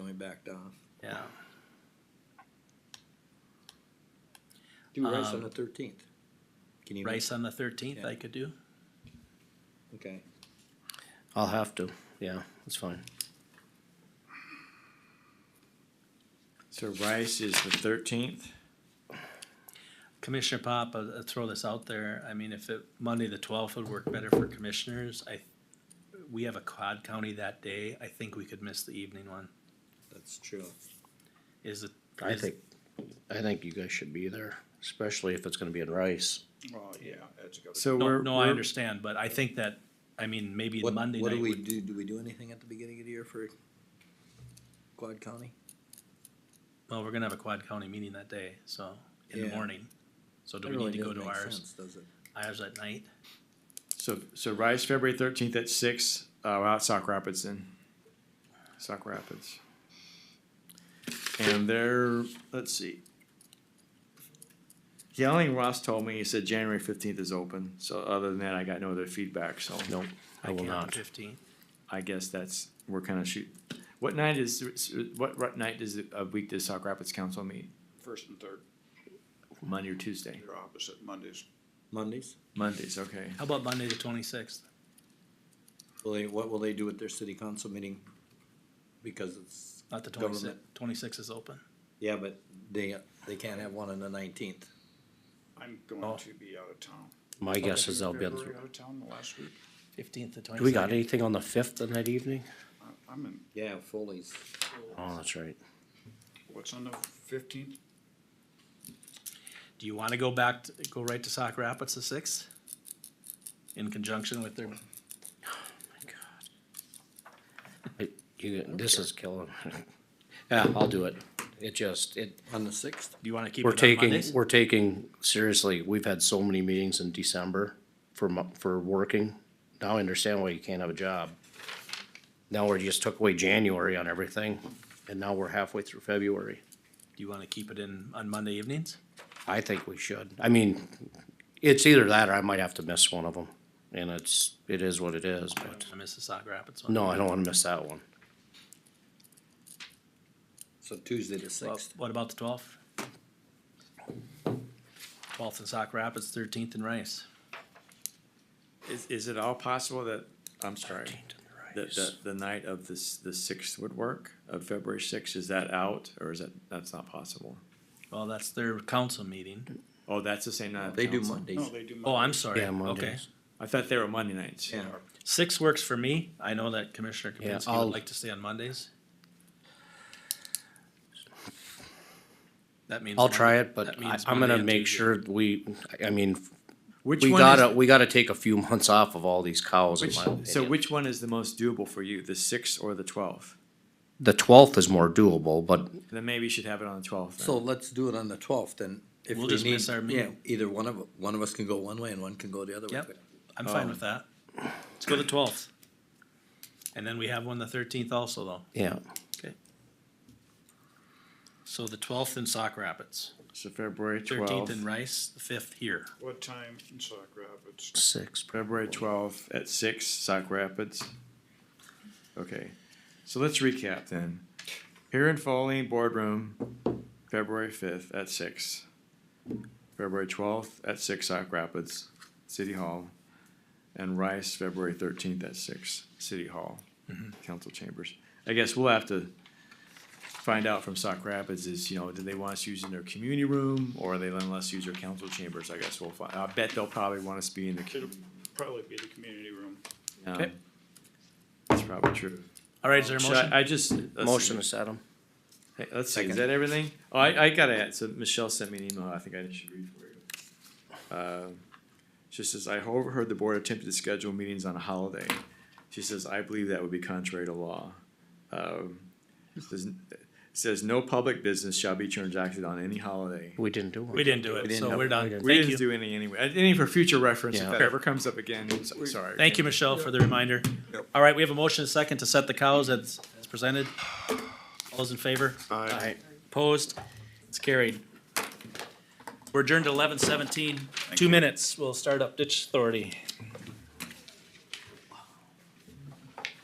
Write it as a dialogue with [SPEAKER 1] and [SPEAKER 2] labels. [SPEAKER 1] backed off.
[SPEAKER 2] Yeah.
[SPEAKER 1] Do rice on
[SPEAKER 2] Um,
[SPEAKER 1] the thirteenth. Can you? make-
[SPEAKER 2] Rice on the thirteenth, I
[SPEAKER 1] Yeah.
[SPEAKER 2] could do.
[SPEAKER 1] Okay.
[SPEAKER 3] I'll have to, yeah, that's fine.
[SPEAKER 4] So Rice is the thirteenth.
[SPEAKER 2] Commissioner Pop, I'll, I'll throw this out there. I mean, if it, Monday the twelfth would work better for commissioners, I, we have a quad county that day. I think we could miss the evening one.
[SPEAKER 1] That's true.
[SPEAKER 2] Is it?
[SPEAKER 3] I
[SPEAKER 2] is-
[SPEAKER 3] think, I think you guys should be there, especially if it's gonna be in Rice.
[SPEAKER 5] Oh, yeah, that's a good.
[SPEAKER 4] So
[SPEAKER 2] No,
[SPEAKER 4] we're.
[SPEAKER 2] no, I
[SPEAKER 4] we're-
[SPEAKER 2] understand, but I think that, I mean, maybe
[SPEAKER 1] What,
[SPEAKER 2] Monday
[SPEAKER 1] what
[SPEAKER 2] night
[SPEAKER 1] do we
[SPEAKER 2] would,
[SPEAKER 1] do? Do we do anything at the beginning of the year for Quad County?
[SPEAKER 2] well, we're gonna have a quad county meeting that day, so, in the
[SPEAKER 1] Yeah.
[SPEAKER 2] morning. So do
[SPEAKER 1] That
[SPEAKER 2] we
[SPEAKER 1] really
[SPEAKER 2] need to go
[SPEAKER 1] doesn't
[SPEAKER 2] to
[SPEAKER 1] make
[SPEAKER 2] ours,
[SPEAKER 1] sense, Does it?
[SPEAKER 2] ours at night?
[SPEAKER 4] So so Rice, February thirteenth at six. Uh, we're out Sock Rapids then. Sock Rapids. And they're let's see. Yeah, only Ross told me he said January fifteenth is open. So other than that, I got no other feedback. So
[SPEAKER 3] No, I will not.
[SPEAKER 2] Fifteen,
[SPEAKER 4] I guess that's we're kind of shoot. What night is what, what night does a week does Sock Rapids Council meet?
[SPEAKER 5] First and third,
[SPEAKER 4] Monday or Tuesday?
[SPEAKER 5] they're opposite Mondays.
[SPEAKER 1] Mondays.
[SPEAKER 4] Mondays, okay.
[SPEAKER 2] how about Monday the twenty-sixth?
[SPEAKER 1] Will they, what will they do at their city council meeting? Because it's
[SPEAKER 2] Not the
[SPEAKER 1] Government.
[SPEAKER 2] twenty-sixth, twenty-sixth is open.
[SPEAKER 1] yeah, but they they can't have one on the nineteenth.
[SPEAKER 5] I'm going
[SPEAKER 2] Oh.
[SPEAKER 5] to be out of town.
[SPEAKER 3] My guess is they'll be,
[SPEAKER 5] February
[SPEAKER 3] able to-
[SPEAKER 5] Out of town the last week.
[SPEAKER 2] Fifteenth to
[SPEAKER 3] do we got
[SPEAKER 2] twenty-second.
[SPEAKER 3] anything on the fifth in that evening?
[SPEAKER 5] I- I'm in,
[SPEAKER 1] Yeah, Foley's.
[SPEAKER 3] Oh, that's right.
[SPEAKER 5] what's on the fifteenth?
[SPEAKER 2] Do you wanna go back, to- go right to Sauk Rapids the sixth? In conjunction with their,
[SPEAKER 3] It- You, this is killing. Yeah, I'll do it. It just, it,
[SPEAKER 1] On the sixth?
[SPEAKER 2] do you wanna keep
[SPEAKER 3] we're
[SPEAKER 2] it on
[SPEAKER 3] taking,
[SPEAKER 2] Mondays?
[SPEAKER 3] we're taking, seriously, we've had so many meetings in December for mo- for working. Now I understand why you can't have a job. Now we just took away January on everything, and now we're halfway through February.
[SPEAKER 2] Do you wanna keep it in on Monday evenings?
[SPEAKER 3] I think we should. I mean, it's either that or I might have to miss one of them. And it's, it is what it is, but
[SPEAKER 2] I miss the Sauk Rapids one.
[SPEAKER 3] no, I don't wanna miss that one.
[SPEAKER 1] So Tuesday the
[SPEAKER 2] Well,
[SPEAKER 1] sixth.
[SPEAKER 2] What about the twelfth? Twelfth in Sauk Rapids, thirteenth in Rice.
[SPEAKER 4] Is, is it all possible that, I'm sorry, that, that the night of this, the sixth would work, of February sixth, is that out, or is that, that's not possible?
[SPEAKER 2] Well, that's their council meeting.
[SPEAKER 4] Oh, that's the same night. of
[SPEAKER 1] They do
[SPEAKER 4] council.
[SPEAKER 1] Mondays.
[SPEAKER 5] No, they do.
[SPEAKER 2] Oh, I'm
[SPEAKER 5] Mondays.
[SPEAKER 2] sorry.
[SPEAKER 3] Yeah,
[SPEAKER 2] Okay.
[SPEAKER 3] Mondays.
[SPEAKER 4] I thought they were Monday nights.
[SPEAKER 1] Yeah.
[SPEAKER 2] Six works for me. I know that Commissioner
[SPEAKER 3] Yeah,
[SPEAKER 2] Kapinski would
[SPEAKER 3] I'll-
[SPEAKER 2] like to stay on Mondays. That means.
[SPEAKER 3] I'll
[SPEAKER 2] Monday-
[SPEAKER 3] try
[SPEAKER 2] that
[SPEAKER 3] it, but I,
[SPEAKER 2] means
[SPEAKER 3] I'm
[SPEAKER 2] Monday
[SPEAKER 3] gonna
[SPEAKER 2] and
[SPEAKER 3] make
[SPEAKER 2] Tuesday.
[SPEAKER 3] sure we, I mean,
[SPEAKER 4] Which
[SPEAKER 3] we
[SPEAKER 4] one
[SPEAKER 3] gotta,
[SPEAKER 4] is-
[SPEAKER 3] we gotta take a few months off of all these cows in
[SPEAKER 4] which-
[SPEAKER 3] my
[SPEAKER 4] so
[SPEAKER 3] opinion.
[SPEAKER 4] which one is the most doable for you, the sixth or the twelfth?
[SPEAKER 3] The twelfth is more doable, but
[SPEAKER 4] Then maybe you should have it on the twelfth.
[SPEAKER 1] So let's do it on the twelfth and if
[SPEAKER 2] We'll
[SPEAKER 1] we
[SPEAKER 2] just miss
[SPEAKER 1] need-
[SPEAKER 2] our
[SPEAKER 1] yeah,
[SPEAKER 2] meeting.
[SPEAKER 1] either one of, one of us can go one way and one can go the other way.
[SPEAKER 2] Yep. I'm fine with that. Um, Let's go the twelfth. And then we have one the thirteenth also though.
[SPEAKER 3] yeah,
[SPEAKER 2] So the twelfth in Sauk Rapids,
[SPEAKER 4] So February
[SPEAKER 2] thirteenth
[SPEAKER 4] twelfth,
[SPEAKER 2] in Rice, the fifth here.
[SPEAKER 5] What time in Sauk Rapids?
[SPEAKER 3] six.
[SPEAKER 4] February twelfth at six, Sauk Rapids. Okay, so let's recap then. Here in Foley Boardroom, February fifth at six. February twelfth at six, Sauk Rapids, City Hall. And Rice, February thirteenth at six, City Hall, Council Chambers. I guess we'll have to find out from Sauk Rapids is, you know, do they want us using their community room or they letting us use their council chambers? I guess we'll find, I bet they'll probably want us to be in the.
[SPEAKER 5] It'll probably be the community room.
[SPEAKER 2] Okay.
[SPEAKER 4] Um, That's probably true.
[SPEAKER 2] All right, is there a
[SPEAKER 4] Should
[SPEAKER 2] motion?
[SPEAKER 4] I, I just. let's
[SPEAKER 3] Motion to
[SPEAKER 4] see.
[SPEAKER 3] set them.
[SPEAKER 4] Hey, Let's see, is
[SPEAKER 1] Second.
[SPEAKER 4] that everything? Oh, I, I gotta add, so Michelle sent me an email, I think I should read for you. Uh, She says, I overheard the board attempted to schedule meetings on a holiday. She says, I believe that would be contrary to law. Um, Says, says no public business shall be transacted on any holiday.
[SPEAKER 3] We didn't do one.
[SPEAKER 2] We didn't do it,
[SPEAKER 1] didn't
[SPEAKER 2] so
[SPEAKER 1] have-
[SPEAKER 2] we're done.
[SPEAKER 1] we didn't.
[SPEAKER 4] We
[SPEAKER 2] Thank
[SPEAKER 4] didn't
[SPEAKER 2] you.
[SPEAKER 4] do any anyway, Uh, any for future reference, if
[SPEAKER 3] Yeah.
[SPEAKER 4] that ever comes up again, I'm so- sorry.
[SPEAKER 2] Thank you, Michelle, for the reminder.
[SPEAKER 5] Yep.
[SPEAKER 2] All right, we have a motion and a second to set the cows as, as presented. All those in favor?
[SPEAKER 3] Aye.
[SPEAKER 2] Opposed? It's carried. We're adjourned to eleven seventeen. Two minutes. We'll start up ditch authority.